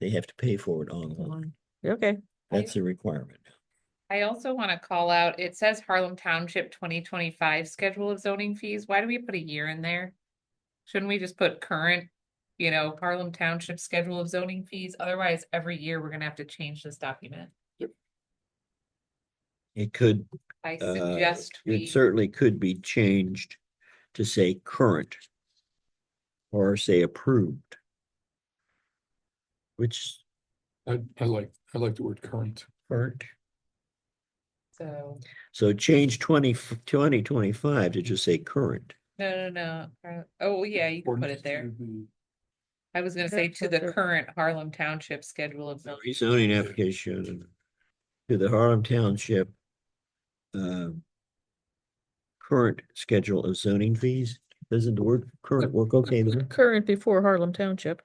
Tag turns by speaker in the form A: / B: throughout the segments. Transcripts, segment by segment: A: They have to pay for it online.
B: Okay,
A: That's a requirement.
C: I also want to call out, it says Harlem Township twenty twenty-five schedule of zoning fees. Why do we put a year in there? Shouldn't we just put current, you know, Harlem Township schedule of zoning fees? Otherwise, every year we're gonna have to change this document.
A: It could,
C: I
A: uh,
C: suggest
A: it
C: we,
A: certainly could be changed to say current. Or say approved. Which
D: I, I like, I like the word current.
A: current,
C: so,
A: so change 20 2025 to just say current.
C: no, no, no. current- Oh, yeah, you can put
D: Ordinance
C: it there.
D: to the-
C: I was gonna say
B: That's
C: to
B: what
C: the
B: they're-
C: current Harlem Township schedule of zoning.
A: Rezoning application to the Harlem Township. um, Current schedule of zoning fees, doesn't the word current work okay there?
B: current before Harlem Township.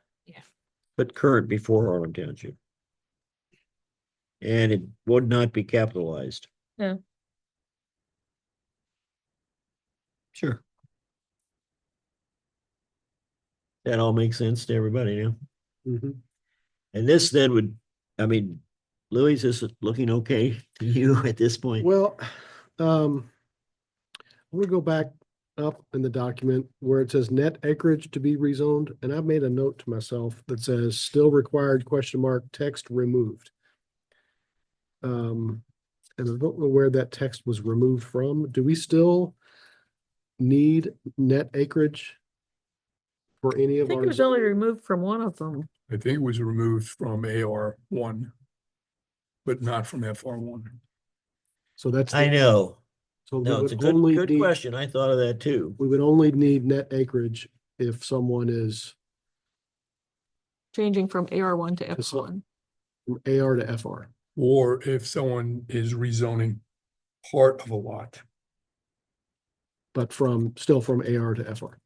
A: But current before Harlem Township. And it would not be capitalized.
B: No.
A: Sure. That all makes sense to everybody now.
E: Mm-hmm.
A: And this then would, I mean, Louis, is it looking okay to you at this point?
E: Well, um, I'm gonna go back up in the document where it says net acreage to be rezoned, and I've made a note to myself that says still required question mark text removed. Um, and I don't know where that text was removed from. Do we still need net acreage for any
B: I
E: of
B: think
E: our?
B: it was only removed from one of them.
D: I think it was removed from AR one, but not from FR one.
E: So that's.
A: I know.
E: So we
A: No, it's a
E: would
A: good,
E: only
A: good
E: need-
A: question. I thought of that too.
E: We would only need net acreage if someone is
B: Changing from AR one to F
E: Just like-
B: one.
E: from AR to FR.
D: Or if someone is rezoning part of a lot.
E: but from, still from AR to FR.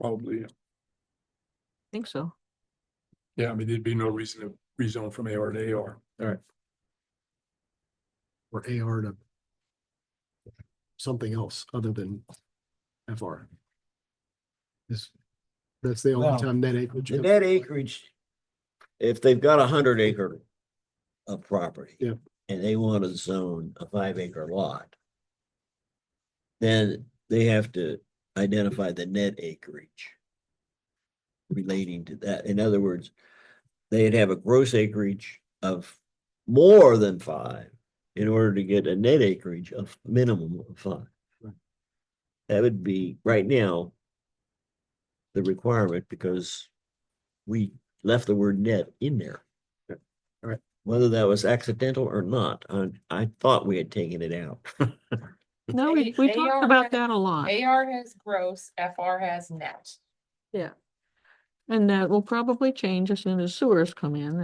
D: Probably,
B: I think so.
D: yeah, I mean, there'd be no reason to rezone from AR to AR.
E: or AR to something else other than FR. Is, that's the
A: Wow.
E: only time net acreage.
A: The
E: goes-
A: net acreage, if they've got a hundred acre of property.
E: Yeah.
A: And they want to zone a five acre lot. Then they have to identify the net acreage. Relating to that, in other words, they'd have a gross acreage of more than five. In order to get a net acreage of minimum of five.
E: Right.
A: That would be, right now. The requirement, because we left the word net in there.
E: Yep. All right.
A: Whether that was accidental or not, I, I thought we had taken it out.
E: Mm-hmm.
B: No, we,
C: A-
B: we talked
C: AR
B: about that a lot.
C: AR has gross, FR has net.
B: And that will probably change as soon as sewers come in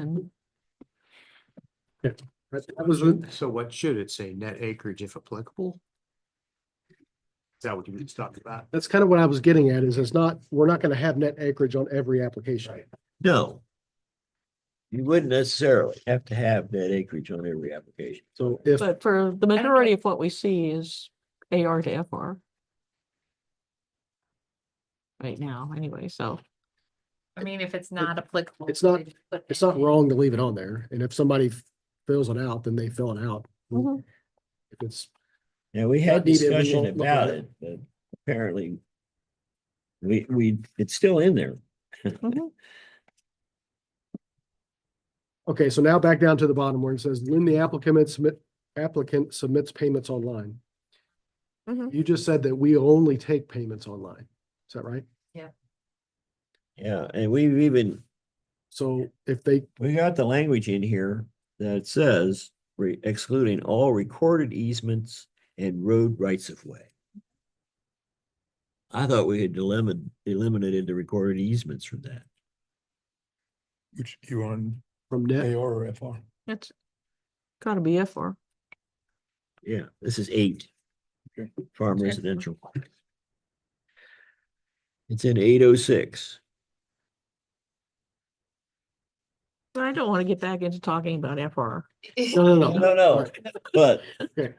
B: and
E: That was, what-
F: So what should it say? Net acreage if applicable? Is that what you were just talking about?
E: that's kind of what I was getting at is it's not, we're not going to have net acreage on every application.
A: No. You wouldn't necessarily have to have net acreage on every application.
E: So if,
B: But for the majority of what we see is AR to FR. Right now, anyway, so
C: I mean, if it's not applicable.
E: it's not-
C: they just put
E: it's
C: net
E: not
C: in.
E: wrong to leave it on there. And if somebody fills it out, then they fill it out.
B: Mhm.
E: If it's,
A: Yeah, we had
E: Not needed, we
A: discussion
E: won't look
A: about
E: at
A: it, but apparently. We, we, it's still in there.
B: mhm.
E: okay, so now back down to the bottom where it says, when the applicant submit, applicant submits payments online.
B: Mhm.
E: You just said that we only take payments online. Is that right?
A: Yeah, and we've even,
E: So if they,
A: we got the language in here that says re- excluding all recorded easements and road rights of way. I thought we had eliminated, eliminated the recorded easements from that.
D: Which you on
E: from net,
D: AR or FR?
B: it's gotta be FR.
A: Yeah, this is eight.
D: Okay.
A: Farm
B: Okay.
A: residential. It's in eight oh six.
B: But I don't want to get back into talking about FR.
E: no, no, no.
A: No, no, but
E: Okay.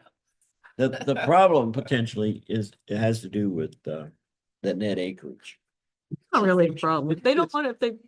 A: the, the problem potentially is, it has to do with, uh, the net acreage.
B: Not really a problem. They don't want it, if they